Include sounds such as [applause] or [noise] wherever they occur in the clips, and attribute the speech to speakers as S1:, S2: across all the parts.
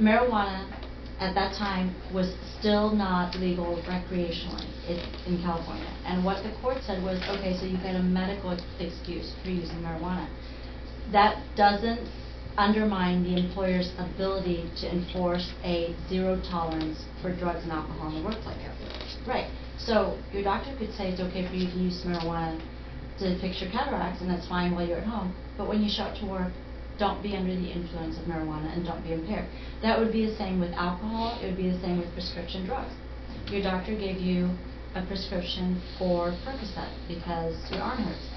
S1: marijuana at that time was still not legal recreationally i- in California. And what the court said was, okay, so you've got a medical excuse for using marijuana. That doesn't undermine the employer's ability to enforce a zero tolerance for drugs and alcohol in the workplace. Right, so your doctor could say it's okay for you to use marijuana to fix your cataracts, and that's fine while you're at home, but when you show up to work, don't be under the influence of marijuana and don't be impaired. That would be the same with alcohol, it would be the same with prescription drugs. Your doctor gave you a prescription for Percocet because your arm hurts.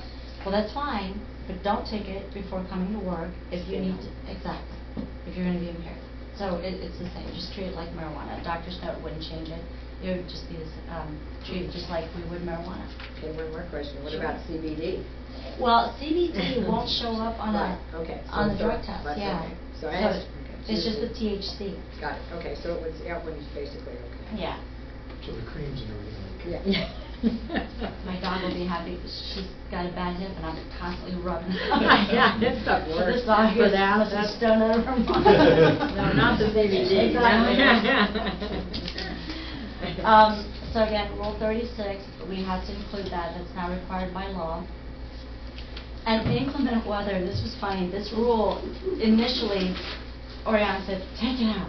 S1: Well, that's fine, but don't take it before coming to work if you need to, exactly, if you're gonna be impaired. So it, it's the same, just treat it like marijuana. A Doctor's note wouldn't change it, it would just be, the s- um, treat it just like we would marijuana.
S2: Okay, one more question, what
S1: Sure.
S2: about CBD?
S1: Well, CBD won't show up on a,
S2: Right, okay, so
S1: on the
S2: it's
S1: drug
S2: a-
S1: test,
S2: that's
S1: yeah.
S2: okay. So I
S1: So
S2: asked- okay.
S1: It's just the THC,
S2: Got it, okay, so it was, that one is basically okay.
S1: yeah.
S3: So the creams and everything.
S1: [laughs]
S2: Yeah.
S1: My dog will be happy, but she's got a bad hip and I'm constantly
S2: [laughs]
S1: rubbing. it.
S2: Yeah, that's not
S1: So
S2: worse.
S1: this dog
S2: For
S1: here is
S2: that,
S1: supposed to
S2: that's-
S1: stone out of her mind.
S2: [laughs] No, not the CBD.
S1: Exactly.
S2: [laughs]
S1: Um, so again, Rule thirty-six, we have to include that, that's now required by law. And inclement weather, this was funny, this rule initially, Oriana said, take it out.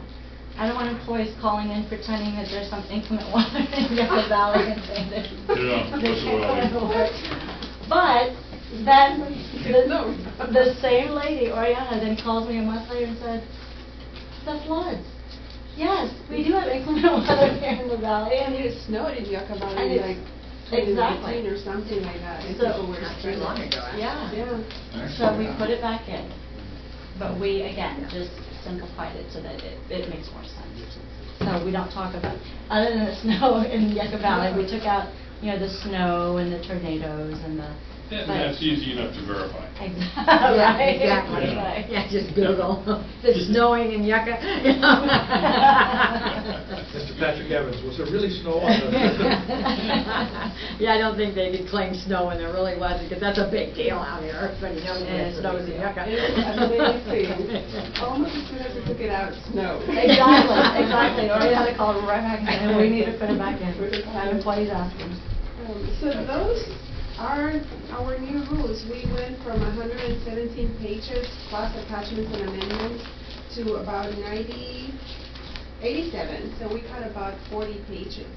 S1: I don't want employees calling in pretending that there's some inclement [laughs] weather in
S2: [laughs]
S1: Yucca Valley and saying that.
S4: Yeah,
S1: they
S4: that's
S1: can't
S4: what I-
S1: go to work. But then, the, the same lady, Oriana, then calls me a month later and said, the floods. Yes, we do have inclement weather here in the valley.
S5: And it snowed in Yucca
S1: And
S5: Valley
S1: it's-
S5: like
S1: exactly.
S5: 2019 or something like that. and
S1: So-
S5: people were
S2: Not too long
S5: screaming.
S2: ago, actually.
S1: Yeah.
S5: Yeah.
S1: So we put it back in, but we, again, just simplified it so that it, it makes more sense. So we don't talk about, other than the [laughs] snow in Yucca Valley, we took out, you know, the snow and the tornadoes and the.
S4: Yeah,
S1: but-
S4: That's easy enough to verify.
S1: Exactly.
S2: [laughs]
S1: [laughs]
S2: Yeah,
S1: Right.
S2: exactly.
S1: Right.
S2: Yeah, just Google, if it's snowing in Yucca.
S3: Mr. Patrick Evans, was there really snow on
S2: [laughs]
S3: the?
S2: [laughs]
S3: [laughs]
S2: Yeah, I don't think they could claim snow when there really wasn't, because that's a big deal out here, everybody knows when it snows in Yucca.
S5: It was amazing. Almost as soon as we took it out, it snowed.
S1: [laughs] Exactly, exactly. Or you had
S5: [laughs]
S1: to call right back in, and we need to put it back in.
S5: Put it back
S1: Have
S5: in.
S1: employees asking.
S5: Um, So those are our new rules. We went from 117 pages plus attachments and amendments to about 90, 87, so we cut about 40 pages.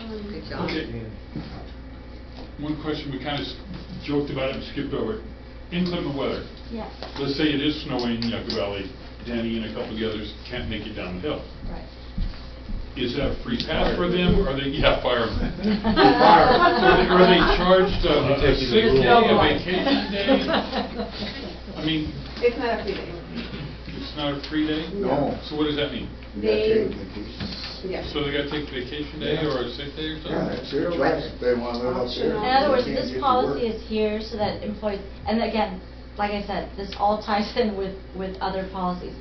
S5: Um,
S2: [laughs] Good job.
S4: Okay, one question, we kind of joked about it and skipped over. it. Inclement weather,
S1: Yes,
S4: let's say it is snowing in Yucca Valley, Danny and a couple of the others can't make it down the hill.
S1: right.
S4: Is that a free pass for them, or they, yeah, fire 'em. Are they- are they charged a a
S3: Taking the
S4: sick day,
S3: rule.
S4: a
S1: [laughs]
S4: vacation day? I mean,
S5: It's not a free day.
S4: it's not a free day?
S6: No.
S4: So what does that mean?
S5: They- Yeah.
S4: So they gotta take vacation day or a sick day or something?
S6: Yeah, it's their choice, if they want to live up there.
S5: In
S1: In other words,
S6: They can't
S1: this
S6: get to
S1: policy
S6: work.
S1: is here so that employees, and again, like I said, this all ties in with, with other policies.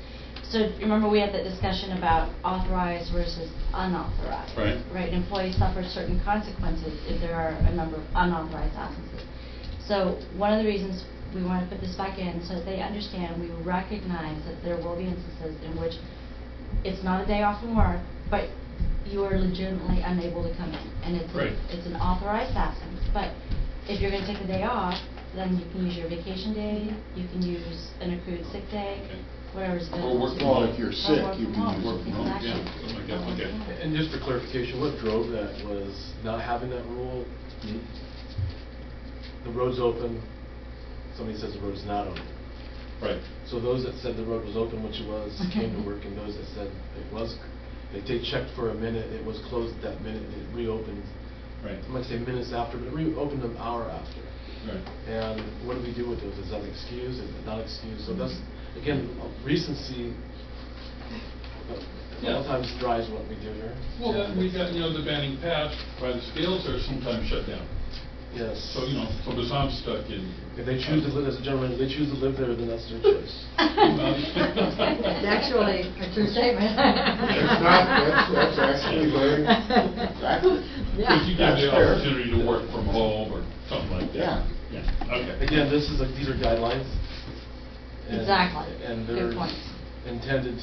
S1: So remember, we had that discussion about authorized versus unauthorized.
S4: Right.
S1: Right, and employees suffer certain consequences if there are a number of unauthorized absences. So one of the reasons we want to put this back in, so that they understand, we recognize that there will be instances in which it's not a day off from work, but you are legitimately unable to come in, and it's,
S4: Right.
S1: a- it's an authorized absence. But if you're gonna take the day off, then you can use your vacation day, you can use an accrued sick day,
S4: Okay.
S1: whatever's good.
S4: Or work
S1: to
S4: from
S1: you.
S4: home. Well, if
S6: you're
S1: Or
S6: sick,
S1: work
S6: you
S1: from
S6: can
S1: home,
S4: work from home, yeah, Oh
S1: exactly.
S4: something like that,
S1: Or work
S4: okay.
S1: from home.
S7: And just for clarification, what drove that was not having that rule, the road's open, somebody says the road's not open.
S4: Right.
S7: So those that said the road was open, which it was, came to work, and those that said it was, they they checked for a minute, it was closed that minute, and it reopened,
S4: Right,
S7: I might say minutes after, but it reopened an hour after.
S4: right.
S7: And what do we do with those? Is that excused, is it not excused? So that's, again, recency, a lot
S4: Yeah.
S7: of times drives what we do here.
S4: Well, then we got, you know, the banning paths by the scales are sometimes shut down.
S7: Yes.
S4: So, you know, so because I'm stuck in.
S7: If they choose to live, as a gentleman, if they choose to live there, then that's their choice.
S1: [laughs]
S2: It's
S4: [laughs]
S2: actually a true statement. It's
S6: not,
S2: [laughs]
S6: that's- that's actually very-
S1: [laughs]
S6: Exactly.
S4: Because you give
S6: That's
S4: the
S6: fair.
S4: opportunity to work from home or something like that.
S6: Yeah.
S4: Yeah. Okay.
S7: Again, this is, a- these are guidelines. and-
S1: Exactly.
S7: And
S1: Good
S7: they're
S1: point.
S7: intended